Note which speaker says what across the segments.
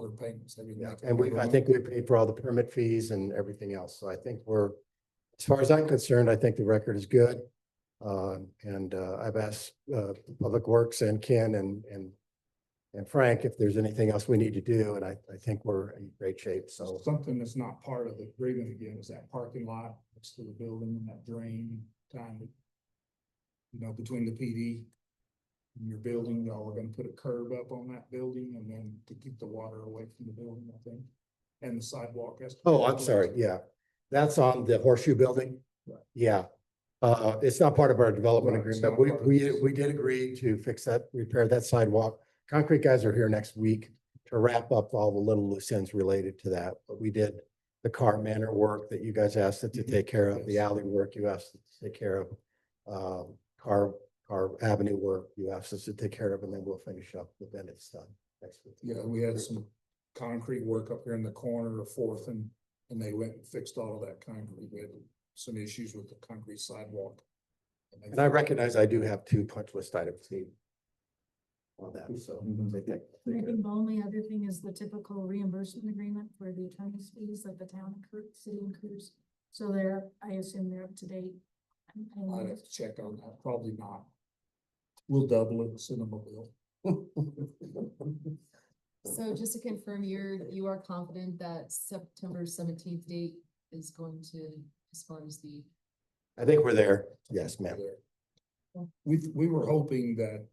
Speaker 1: their payments. They didn't
Speaker 2: Yeah,
Speaker 1: have to
Speaker 2: and
Speaker 1: pay
Speaker 2: we, I
Speaker 1: their-
Speaker 2: think we paid for all the permit fees and everything else. So I think we're, as far as I'm concerned, I think the record is good. Um, and, uh, I've asked, uh, Public Works and Ken and, and, and Frank if there's anything else we need to do. And I, I think we're in great shape. So,
Speaker 1: Something that's not part of the agreement again is that parking lot next to the building, that drain time. that, You know, between the PD and your building, y'all are gonna put a curb up on that building and then to keep the water away from the building, I think. And the sidewalk has. to be
Speaker 2: oh, I'm
Speaker 1: replaced.
Speaker 2: sorry. Yeah. That's on the horseshoe building.
Speaker 1: Right.
Speaker 2: Yeah. Uh, it's not part of our development
Speaker 1: Right, it's
Speaker 2: agreement.
Speaker 1: not
Speaker 2: We,
Speaker 1: part of
Speaker 2: we,
Speaker 1: this.
Speaker 2: we did agree to fix that, repair that sidewalk. Concrete guys are here next week to wrap up all the little loose ends related to that. But we did the car manor work that you guys asked us to
Speaker 1: Mhm,
Speaker 2: take care of, the
Speaker 1: yes.
Speaker 2: alley work you asked us to take care of. Um, car, car avenue work you asked us to take care of, and then we'll finish up the Bennett stuff next week.
Speaker 1: Yeah, we had some concrete work up here in the corner of Fourth and, and they went and fixed all of that concrete. We had some issues with the concrete sidewalk. they
Speaker 2: And I recognize I do have two punch list items, Steve. On that, so.
Speaker 1: Mhm.
Speaker 2: take that-
Speaker 3: And I
Speaker 2: take it.
Speaker 3: think the only other thing is the typical reimbursement agreement for the attorney's fees that the town accrues, city accrues. So they're, I assume they're up to date. And- and
Speaker 1: I'd have to check on that, probably not. We'll double it, cinema will.
Speaker 4: So just to confirm, you're, you are confident that September seventeenth date is going to, as far as the,
Speaker 2: I think we're there. Yes, ma'am.
Speaker 1: there. We, we were hoping that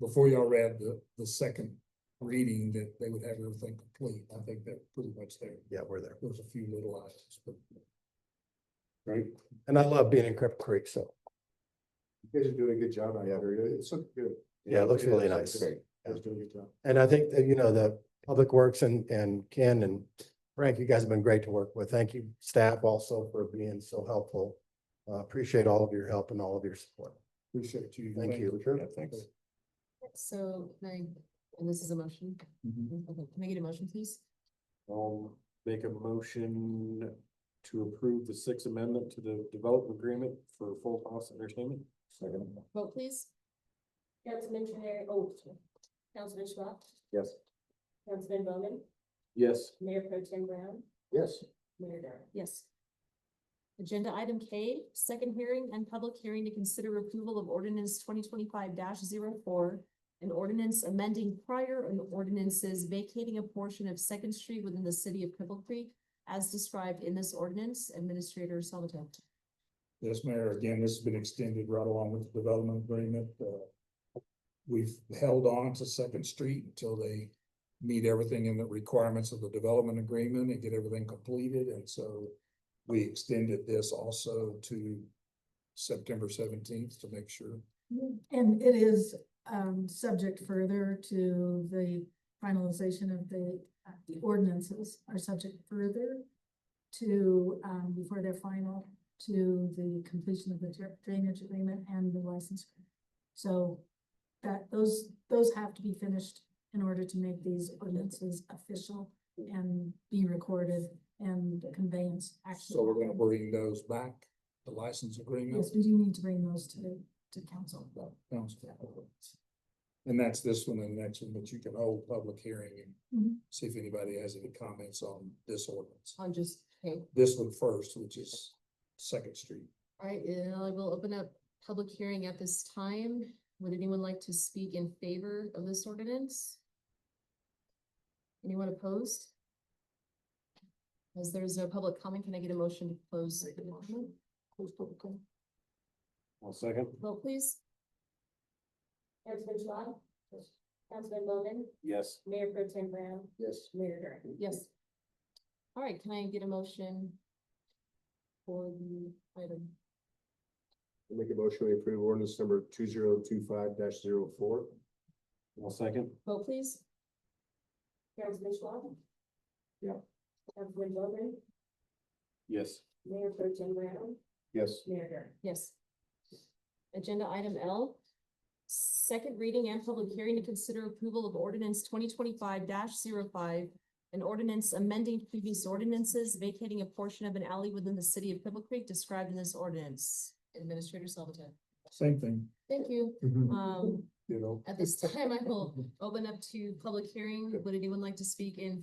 Speaker 1: before y'all read the, the second reading, that they would have everything complete. I think they're pretty much there.
Speaker 2: Yeah, we're there.
Speaker 1: There's a few little items, but. Right.
Speaker 2: And I love being in Crip Creek, so
Speaker 5: You guys are doing a good job out there. It's looking good.
Speaker 2: yeah, it looks really
Speaker 5: is.
Speaker 2: nice.
Speaker 5: Great. You guys are doing a good job.
Speaker 2: And I think that, you know, the Public Works and, and Ken and Frank, you guys have been great to work with. Thank you, staff also for being so helpful. Uh, appreciate all of your help and all of your support.
Speaker 1: Appreciate you.
Speaker 2: Thank you.
Speaker 1: Yeah, thanks.
Speaker 4: so, can I, and this is a motion,
Speaker 1: Mhm.
Speaker 4: okay, can I get a motion, please?
Speaker 5: I'll make a motion to approve the sixth amendment to the development agreement for Full House Entertainment. Second.
Speaker 4: Vote please,
Speaker 6: Councilman Trahan, oh, sorry. Councilman Schwab,
Speaker 5: Yes.
Speaker 6: Councilman Bowman,
Speaker 5: Yes.
Speaker 6: Mayor Pro Tim Brown,
Speaker 5: Yes.
Speaker 6: Mayor Darrell.
Speaker 4: yes. Agenda item K, second hearing and public hearing to consider approval of ordinance twenty twenty-five 4 An ordinance amending prior and ordinances vacating a portion of Second Street within the city of Cripple Creek as described in this ordinance, Administrator Salvatore.
Speaker 1: Yes, Mayor, again, this has been extended right along with the development agreement. Uh, We've held on to Second Street until they meet everything in the requirements of the development agreement and get everything completed, and so we extended this also to September seventeenth to make sure.
Speaker 3: And it is, um, subject further to the finalization of the, uh, the ordinances are subject further to, um, before they're final, to the completion of the dra- drainage agreement and the license. agreement. So that, those, those have to be finished in order to make these ordinances official and be recorded and the conveyance. actually
Speaker 1: So we're gonna
Speaker 3: happen.
Speaker 1: bring those back, the license agreement.
Speaker 3: Yes, we do need to bring those to, to council.
Speaker 1: Sounds good. And that's this one and the next one, but you can hold public hearing and
Speaker 3: Mhm.
Speaker 1: see if anybody has any comments on this ordinance.
Speaker 4: On just, okay,
Speaker 1: This one first, which is Second Street.
Speaker 4: all right, uh, I will open up public hearing at this time. Would anyone like to speak in favor of this ordinance? Anyone opposed? As there's no public comment, can I get a motion to close?
Speaker 1: Make a
Speaker 4: the
Speaker 1: motion.
Speaker 4: comment?
Speaker 5: One second.
Speaker 4: Vote please,
Speaker 6: Councilman Schwab, Councilman Bowman,
Speaker 5: Yes.
Speaker 6: Mayor Pro Tim Brown,
Speaker 5: Yes.
Speaker 6: Mayor Darrell.
Speaker 4: yes. All right, can I get a motion? For the item,
Speaker 5: Make a motion to approve ordinance number two zero two five dash zero four. One second.
Speaker 4: vote please,
Speaker 6: Councilman Schwab.
Speaker 5: Yeah.
Speaker 6: Councilman Bowman,
Speaker 5: Yes.
Speaker 6: Mayor Pro Tim Brown,
Speaker 5: Yes.
Speaker 6: Mayor Darrell.
Speaker 4: yes. Agenda item L. Second reading and public hearing to consider approval of ordinance twenty twenty-five 5 An ordinance amending previous ordinances vacating a portion of an alley within the city of Pebble Creek described in this ordinance. Administrator Salvatore.
Speaker 1: Same thing.
Speaker 4: Thank you. Um,
Speaker 5: Mm-hmm.
Speaker 1: You know.
Speaker 4: at this time, I will open up to public hearing. Would anyone like to speak in